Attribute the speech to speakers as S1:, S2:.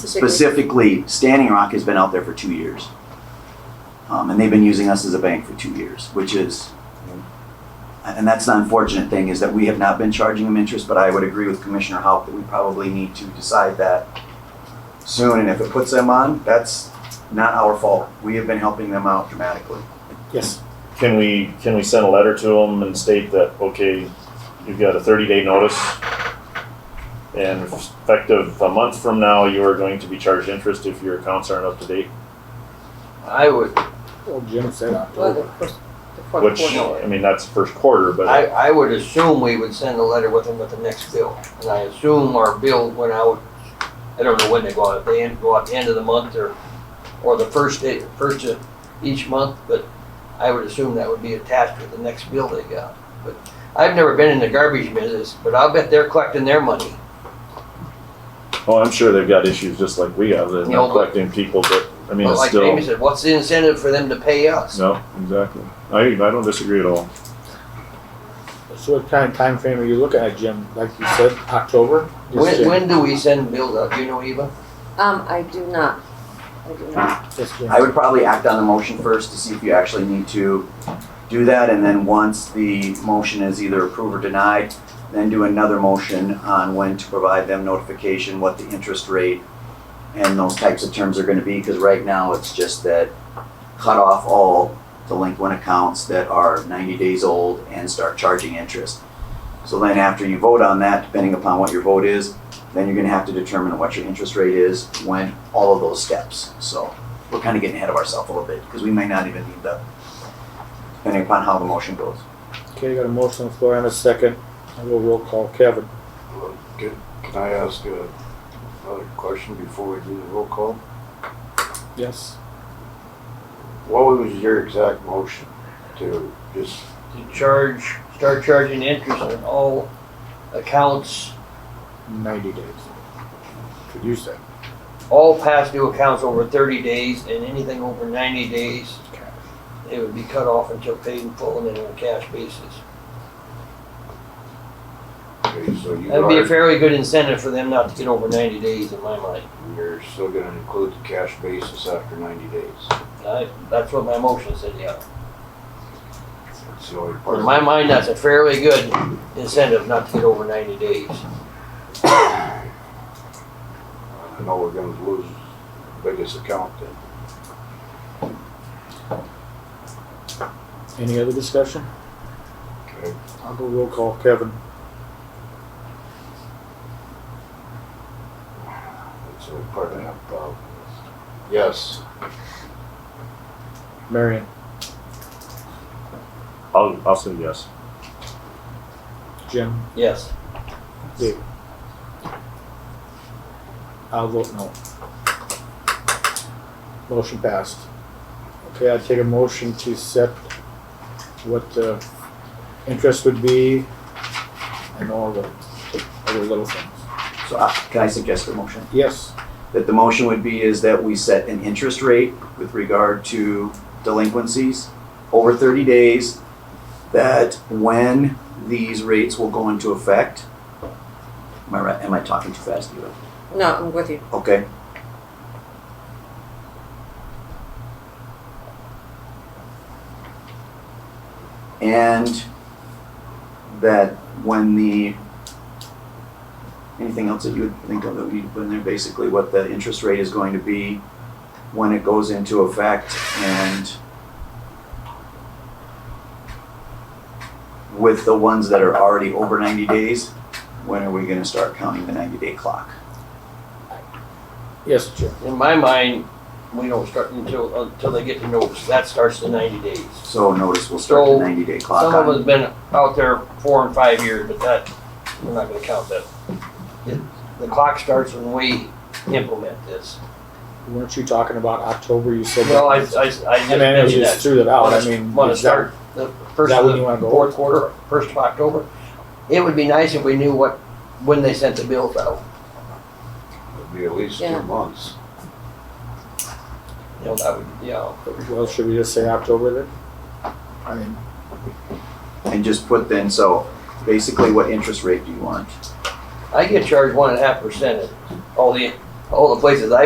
S1: specifically, Standing Rock has been out there for two years. Um, and they've been using us as a bank for two years, which is, and that's the unfortunate thing, is that we have not been charging them interest, but I would agree with Commissioner Haupt that we probably need to decide that soon, and if it puts them on, that's not our fault. We have been helping them out dramatically.
S2: Yes.
S3: Can we, can we send a letter to them and state that, okay, you've got a thirty day notice? And effective a month from now, you are going to be charged interest if your accounts aren't up to date,
S4: I would,
S2: Well, Jim said
S5: Well, the
S2: October.
S5: first, the fourth
S3: which,
S5: quarter.
S3: I mean, that's first quarter,
S4: I,
S3: but
S4: I would assume we would send a letter with them with the next bill. And I assume our bill went out, I don't know when they go out, if they end- go out the end of the month or, or the first day, first of each month, but I would assume that would be attached with the next bill they got. But I've never been in the garbage business, but I'll bet they're collecting their money.
S3: oh, I'm sure they've got issues just like we have, they're not
S4: No, but-
S3: collecting people, but, I mean,
S4: But
S3: it's
S4: like
S3: still,
S4: Jamie said, what's the incentive for them to pay us?
S3: no, exactly. I, I don't disagree at all.
S2: So what kind of time frame are you looking at, Jim? Like you said, October? Yes,
S4: When,
S2: Jim.
S4: when do we send bills out? Do you know, Eva?
S5: Um, I do not, I do not.
S2: Yes, Jim.
S1: I would probably act on the motion first to see if you actually need to do that, and then once the motion is either approved or denied, then do another motion on when to provide them notification, what the interest rate and those types of terms are gonna be, because right now it's just that cut off all delinquent accounts that are ninety days old and start charging interest. So then after you vote on that, depending upon what your vote is, then you're gonna have to determine what your interest rate is, when, all of those steps, so we're kind of getting ahead of ourselves a little bit because we may not even need the, depending upon how the motion goes.
S2: Okay, got a motion on the floor and a second. I will roll call. Kevin?
S6: Well, Can can I ask uh, another question before we do the roll call?
S2: Yes.
S6: What was your exact motion to just,
S4: To charge, start charging interest on all accounts
S2: Ninety days. Could you say?
S4: all past due accounts over thirty days and anything over ninety days, it would be cut off until paid in full and then on a cash basis.
S6: okay, so you
S4: That'd be a
S6: are,
S4: fairly good incentive for them not to get over ninety days in my mind.
S6: you're still gonna include the cash basis after ninety days?
S4: I, that's what my motion said, yeah.
S6: That's the only part.
S4: In my mind, that's a fairly good incentive not to get over ninety days.
S6: Uh, I know we're gonna lose the biggest account then.
S2: Any other discussion?
S6: Okay.
S2: I'll go roll call. Kevin?
S6: That's the only part I have a problem with. Yes,
S2: Marion?
S3: I'll, I'll say yes.
S2: Jim?
S4: Yes,
S2: I'll vote no. Motion passed. Okay, I take a motion to set what the interest would be and all the other little things.
S1: So uh, can I suggest a motion?
S2: Yes,
S1: That the motion would be is that we set an interest rate with regard to delinquencies over 30 days, that when these rates will go into effect, am I right, am I talking too fast, Eva?
S5: No, I'm with you.
S1: Okay, and that when the, anything else that you would think of that we need to put in there, basically what the interest rate is going to be when it goes into effect and with the ones that are already over ninety days, when are we gonna start counting the ninety day clock?
S2: yes, Jim.
S4: in my mind, we don't start until, until they get the notice, that starts the ninety days.
S1: So notice will start the
S4: So,
S1: ninety day clock
S4: Some of
S1: on.
S4: us been out there four and five years, but that, we're not gonna count that. It- The clock starts when we implement this.
S2: Weren't you talking about October, you said?
S4: Well, I, I, I
S2: I
S4: just
S2: mean, I
S4: mentioned
S2: just
S4: that.
S2: threw that out, I
S4: Wanna-
S2: mean.
S4: Wanna
S2: is that-
S4: start the
S2: Is
S4: first
S2: that
S4: of
S2: when you
S4: the
S2: wanna go?
S4: fourth quarter, first of October? It would be nice if we knew what, when they sent the bills out.
S6: it'll be at least
S5: Yeah.
S6: two months.
S4: You know, that would, you know,
S2: Well, should we just say October then? I mean,
S1: And just put then, so basically what interest rate do you want?
S4: I get charged one and a half percent at all the, all the places I